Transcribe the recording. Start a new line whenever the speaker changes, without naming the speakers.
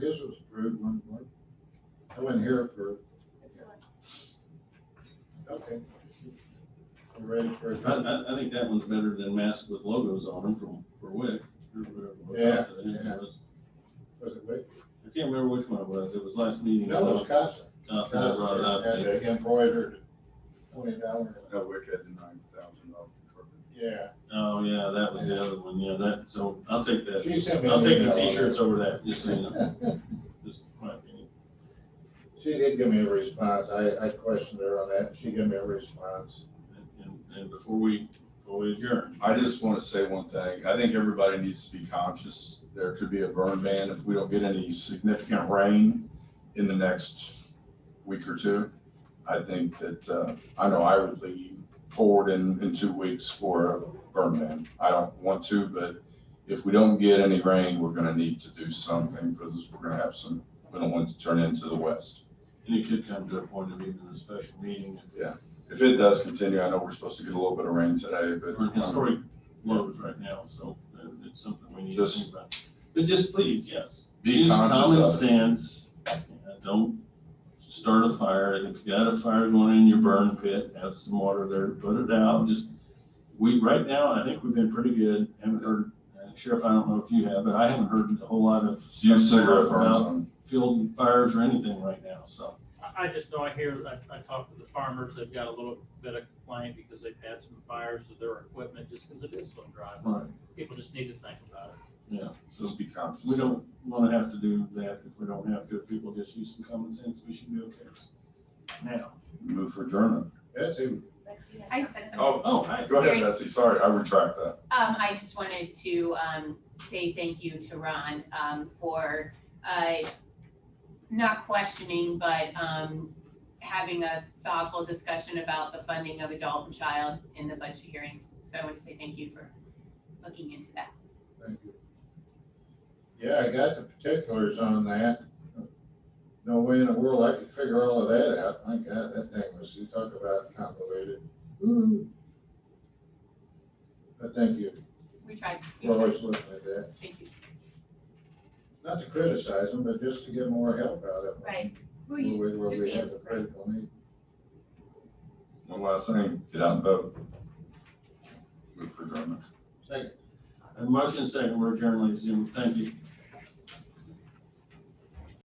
His was approved one, one. I wasn't here for, okay. You ready for
I,
it?
I, I think that one's better than masks with logos on them from, for Wick. or whatever it was.
Yeah, Was it Wick?
I can't remember which one it was. It was last meeting.
No, it was Casa.
Costa
Casa
uh, brought it up.
Had the embroidered twenty dollar,
No, Wick had the nine thousand dollars.
yeah.
Oh, yeah, that was the other one. Yeah, that, so I'll take that.
She sent me.
I'll
an
take the
email on
t-shirts over that, just so you know. Just my opinion.
She did give me a response. I, I questioned her on that. She gave me a response.
And, and before we, before we adjourn,
I just want to say one thing. I think everybody needs to be conscious. There could be a burn ban if we don't get any significant rain in the next week or two. I think that, uh, I know I would lean forward in, in two weeks for a burn ban. I don't want to, but if we don't get any rain, we're gonna need to do something because we're gonna have some, we don't want it to turn into the west.
and it could come to a point of even a special meeting.
If it does continue, I know we're supposed to get a little bit of rain today, but.
We're in historic lows right now, so uh, it's something we need to
Just-
think about. But just please, yes,
Be
use
conscious
common
of it.
sense. Uh, Don't start a fire. If you got a fire going in your burn pit, have some water there, put it out. Just, we, right now, I think we've been pretty good. Haven't heard, uh, Sheriff, I don't know if you have, but I haven't heard a whole lot of.
Use cigarette burns
about
on.
Field fires or anything right now, so.
I, I just know, I hear, I, I talked to the farmers, they've got a little bit of complaint because they've had some fires with their equipment, just because it is so dry.
Right.
People just need to think about it.
Yeah, so
Just be conscious.
we don't wanna have to do that if we don't have to. If people just use some common sense, we should be okay. Now,
Move for German.
Betsy,
I said something.
Oh,
oh, hi.
go ahead, Betsy. Sorry, I retract that.
Um, I just wanted to, um, say thank you to Ron, um, for, uh, not questioning, but, um, having a thoughtful discussion about the funding of adult and child in the budget hearings. So I want to say thank you for looking into that.
thank you. Yeah, I got the particulars on that. No way in the world I could figure all of that out. My God, that thing was, you talk about convoluted. Ooh. But thank you.
We tried. we
We're
tried.
always looking at that.
Thank you.
Not to criticize them, but just to get more help out of them.
Right. Who
Where we-
you,
where
just
we have
answer,
a critical need.
One last thing, get out and vote. Move for German.
Second,
A motion second, we're adjourned, ladies and gentlemen. Thank you.